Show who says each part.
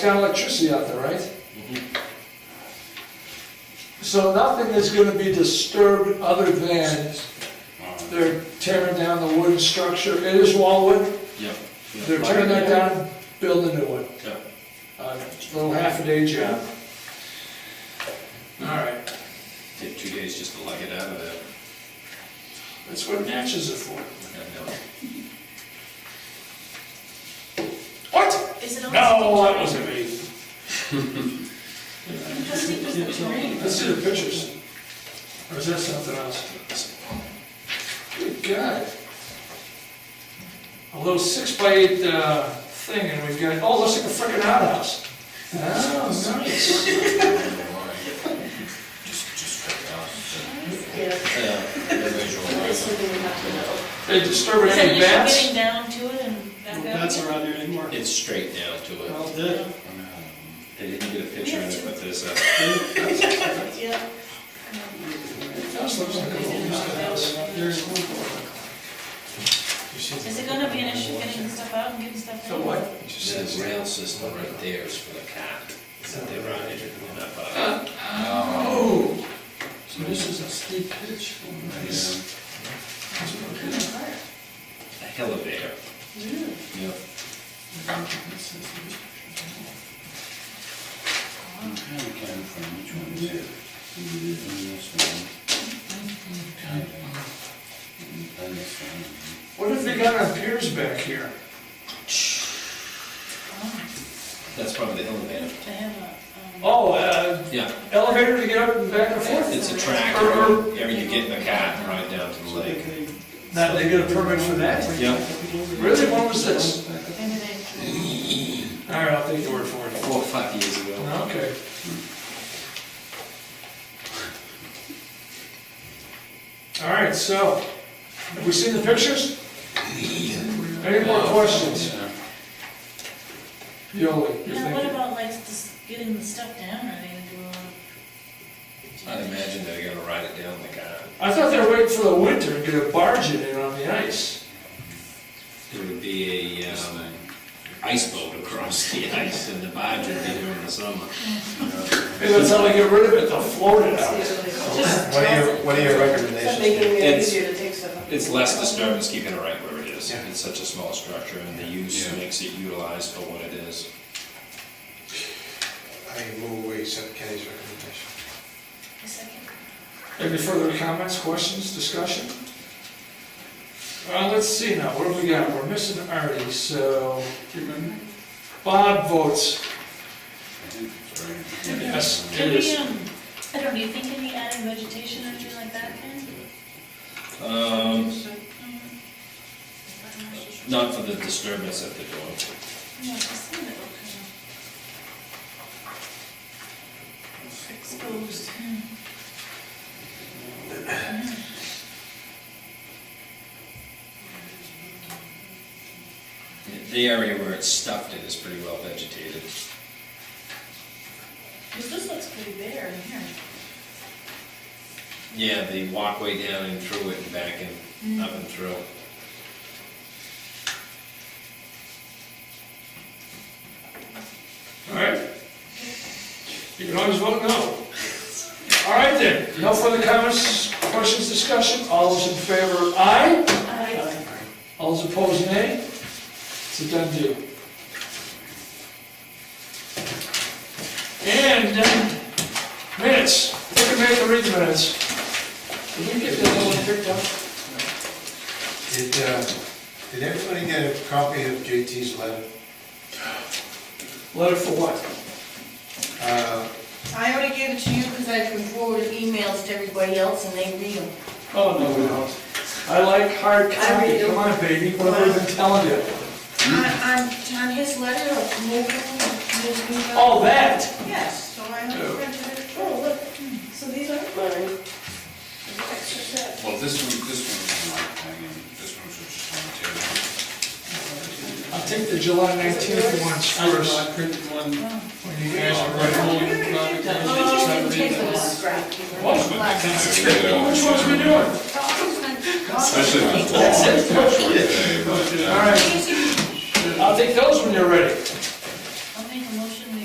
Speaker 1: got electricity out there, right? So nothing is gonna be disturbed other than
Speaker 2: Uh,
Speaker 1: they're tearing down the wooden structure, it is wall wood,
Speaker 2: Yeah.
Speaker 1: they're tearing that down, building a new one.
Speaker 2: Yeah.
Speaker 1: Uh, it's a little half a day job. All right,
Speaker 2: Take two days just to lug it out of there.
Speaker 1: that's what matches are for.
Speaker 2: And, uh,
Speaker 1: What?
Speaker 3: Is it on?
Speaker 1: No, that wasn't me.
Speaker 3: It
Speaker 1: Let's see the pictures. Or is that something else? Good God. A little six by eight, uh, thing, and we've got, oh, looks like a frickin' outhouse. Oh, nice.
Speaker 2: Just, just check it out.
Speaker 3: Yes.
Speaker 2: Yeah, the visual.
Speaker 3: This would be enough to know.
Speaker 1: They disturb
Speaker 3: Is that
Speaker 1: any
Speaker 3: you
Speaker 1: bats?
Speaker 3: getting down to it and back
Speaker 4: No
Speaker 3: up?
Speaker 4: bats around there anymore.
Speaker 2: It's straight down to it.
Speaker 4: Well, dead.
Speaker 2: Um, They didn't get a picture of it, but there's a,
Speaker 3: Yeah.
Speaker 1: House looks like a little outhouse.
Speaker 4: There's
Speaker 3: Is it gonna be an issue getting stuff out and getting stuff in? Oh,
Speaker 1: So what?
Speaker 2: there's a rail system right there is for the cat. That they run it and up, uh,
Speaker 1: Oh. So this is a steep pitch. Oh, Nice.
Speaker 2: yeah, a elevator. Yeah.
Speaker 5: I'm trying to clarify which one is it. Done this one. Kind of. Done this one.
Speaker 1: What have they got on piers back here?
Speaker 2: That's probably the elevator.
Speaker 3: To have a, um,
Speaker 1: Oh, uh,
Speaker 2: Yeah,
Speaker 1: elevator to get up and back and forth?
Speaker 2: it's a track, or, or you get in the cat and ride down to the lake.
Speaker 1: Now, they get a permit for that?
Speaker 2: Yeah.
Speaker 1: Really, when was this?
Speaker 3: maybe they,
Speaker 1: All right, I'll take your word for it.
Speaker 2: Four or five years ago.
Speaker 1: Okay. All right, so, have we seen the pictures? Any more questions? Yoli, you're
Speaker 3: now what
Speaker 1: thinking?
Speaker 3: about like just getting the stuff down, are they gonna do a lot of-
Speaker 2: I'd imagine they're gonna ride it down the cat.
Speaker 1: I thought they were waiting for the winter and get a barge in on the ice.
Speaker 2: There would be a, um, ice boat across the ice and the barge would be during the summer.
Speaker 1: Maybe that's how they get rid of it, they'll float it out.
Speaker 3: Just
Speaker 6: What are your,
Speaker 3: toss it.
Speaker 6: what are your
Speaker 7: It's
Speaker 6: recommendations?
Speaker 7: making it
Speaker 2: It's-
Speaker 7: easier to take stuff up.
Speaker 2: It's less disturbance keeping it right where it is.
Speaker 6: Yeah.
Speaker 2: It's such a small structure and the use
Speaker 5: Yeah.
Speaker 2: makes it utilized for what it is.
Speaker 6: I move we accept Kenny's recommendation.
Speaker 3: A second.
Speaker 1: Any further comments, questions, discussion? Uh, let's see now, what have we got? We're missing Artie, so Bob votes yes, it
Speaker 3: Can we,
Speaker 1: is.
Speaker 3: um, I don't know, do you think any added vegetation or anything like that can?
Speaker 2: Um,
Speaker 3: Mm.
Speaker 2: not for the disturbance at the door.
Speaker 3: Yeah, I see that, okay. Exposed. hmm.
Speaker 2: The area where it's stuffed in is pretty well vegetated.
Speaker 3: Cause this looks pretty bare in here.
Speaker 2: Yeah, the walkway down and through it and back and up and through.
Speaker 1: All right? You can always vote no. All right then, no further comments, questions, discussion? All those in favor, aye.
Speaker 3: I,
Speaker 1: All those opposed, nay. It's a done deal. And um, minutes, look at me, read the minutes. Did we get that one picked up?
Speaker 6: Did, uh, did everybody get a copy of JT's letter?
Speaker 1: Letter for what?
Speaker 6: Uh,
Speaker 7: I already gave it to you because I can forward emails to everybody else and they read them.
Speaker 1: Oh, no, we don't. I like hard
Speaker 7: I
Speaker 1: copy,
Speaker 7: read it.
Speaker 1: come on, baby, what have I been telling you?
Speaker 7: On, on, on his letter of moving, moving.
Speaker 1: All that?
Speaker 7: Yes, so I have printed it. Oh, look, so these aren't mine.
Speaker 5: Well, this one, this one is not hanging, this one's just on the table.
Speaker 1: I'll take the July nineteenth ones first.
Speaker 4: I printed one.
Speaker 1: When you guys are ready.
Speaker 7: Oh, I didn't take the last.
Speaker 1: What? Which ones we doing?
Speaker 5: Especially when it's long.
Speaker 1: All right, I'll take those when you're ready.